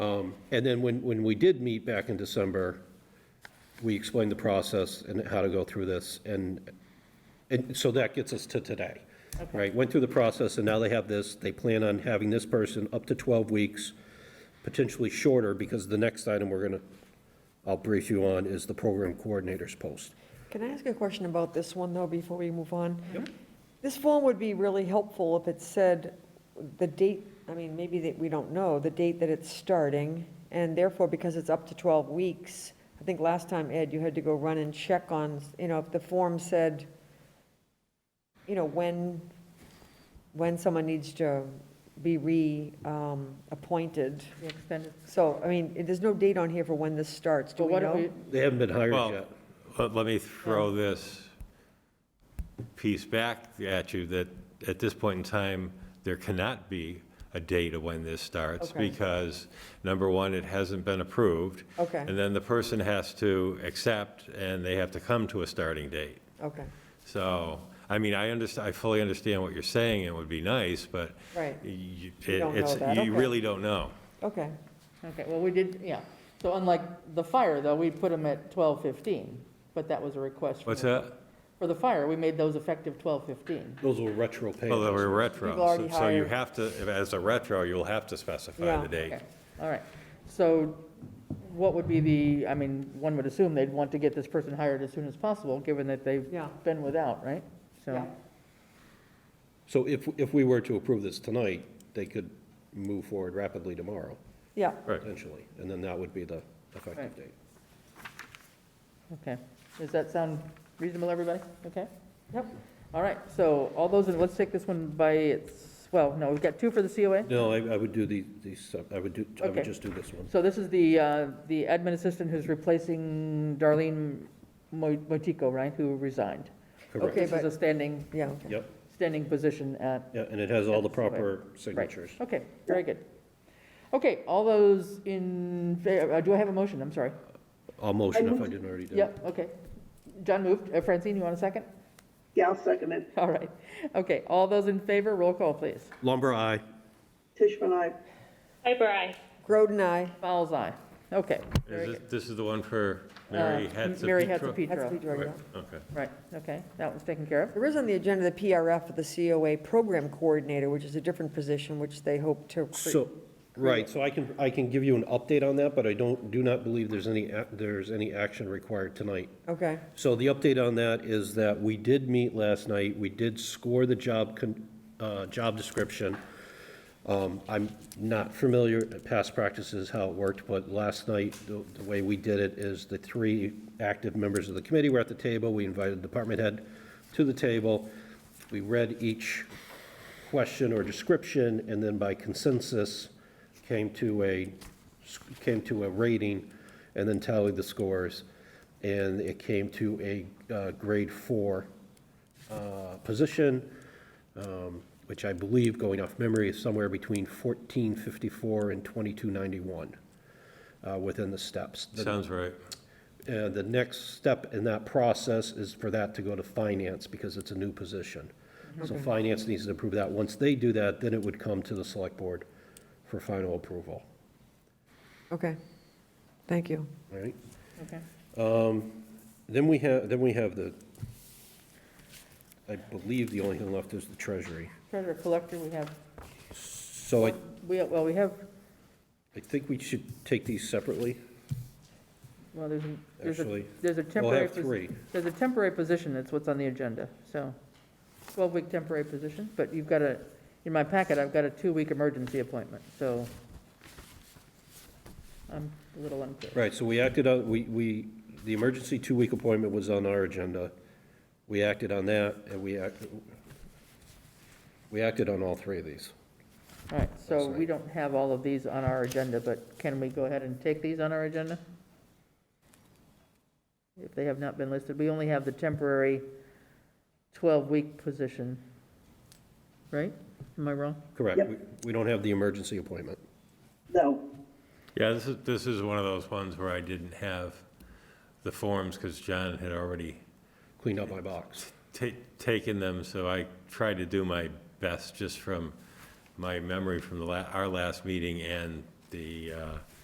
Um, And then when, when we did meet back in December, we explained the process and how to go through this, and, and so that gets us to today. Right, went through the process, and now they have this, they plan on having this person up to 12 weeks, potentially shorter, because the next item we're gonna, I'll brief you on, is the program coordinators post. Can I ask a question about this one, though, before we move on? This form would be really helpful if it said the date, I mean, maybe that, we don't know, the date that it's starting, and therefore, because it's up to 12 weeks, I think last time, Ed, you had to go run and check on, you know, if the form said, you know, when, when someone needs to be reappointed. The extended, So, I mean, there's no date on here for when this starts, do but we what if know? we, They haven't been hired Well, yet. Let let me throw this piece back at you, that at this point in time, there cannot be a date of when this starts, Okay. because, number one, it hasn't been approved. Okay. And then the person has to accept, and they have to come to a starting date. Okay, So, I mean, I understand, I fully understand what you're saying, it would be nice, but Right. you- You don't know it's- that, okay. you really don't know. okay, okay, well, we did, yeah. So unlike the fire, though, we put them at twelve fifteen, but that was a request. from What's the- that? For the fire, we made those effective twelve fifteen. Those were retro payments. Well, they were retro. We've already So you hired- have to, as a retro, you'll have to specify Yeah. the date. All right, so what would be the, I mean, one would assume they'd want to get this person hired as soon as possible, given that they've Yeah. been without, right? So, yeah. So if, if we were to approve this tonight, they could move forward rapidly tomorrow, Yeah, Right. potentially, and then that would be the effective Right. date. okay. Does that sound reasonable, everybody? Okay? Yep. All right, so all those, in let's take this one by its, well, no, we've got two for the COA? No, I, I would do the, these, uh, I would do, I Okay. would just do this one. So this is the, uh, the admin assistant who's replacing Darlene Mo- Motico, right, who resigned? Correct. Okay, This is but- a standing, yeah, okay. Yep, standing position at, yeah, and it has all the That's the way. proper right, signatures. okay, very good. Okay, all those in, fa- uh, do I have a motion, I'm sorry? I'll motion if I moved- didn't already do. it. Yep, okay. John moved, Uh, Francine, you want a second? Yeah, I'll second it. All right, okay, all those in favor, roll call, please. Lumber, aye. Tishman, I, Piper, aye. Groden, aye. Fowles, aye, okay. very Is good. this, this is the one for Mary Uh, Hatzapetro? Mary Hatzapetro. That's what we drew, Right, yeah. Okay. Right, okay, that one's taken care of. There is on the agenda the PRF for the COA Program Coordinator, which is a different position, which they hope to create. So, right, so I can, I can give you an update on that, but I don't, do not believe there's any, ac- there's any action required tonight. Okay, So the update on that is that we did meet last night, we did score the job, con- uh, job description. Um, I'm not familiar, with past practices, how it worked, but last night, the the way we did it is the three active members of the committee were at the table, we invited department head to the table, we read each question or description, and then by consensus, came to a, came to a rating, and then tallied the scores. And it came to a uh, grade four uh, position, um, which I believe, going off memory, is somewhere between 1454 and 2291 uh, within the steps. The Sounds right. uh, the next step in that process is for that to go to finance, because it's a new position. So finance needs to approve that. Once they do that, then it would come to the select board for final approval, okay. Thank you. all right? Okay. Then we have, then we have the, I believe the only thing left is the treasury. Treasurer collector, we have, So I, we, well, we have, I think we should take these separately. well, there's, a- there's a, Actually, there's a We'll temporary. have posi- three. There's a temporary position, that's what's on the agenda, so, 12-week temporary position, but you've got a, in my packet, I've got a two-week emergency appointment, so I'm a little unclear. Right, so we acted on, we, we, the emergency two-week appointment was on our agenda. We acted on that, and we act, we acted on all three of these. All right, so That's right. we don't have all of these on our agenda, but can we go ahead and take these on our agenda? If they have not been listed, we only have the temporary 12-week position, right? Am I wrong? Correct. Yep. We- We don't have the emergency appointment. no, Yeah, this is, this is one of those ones where I didn't have the forms, because John had already Cleaned up my box. ta- taken them, so I tried to do my best just from my memory from the la, our last meeting and the, uh,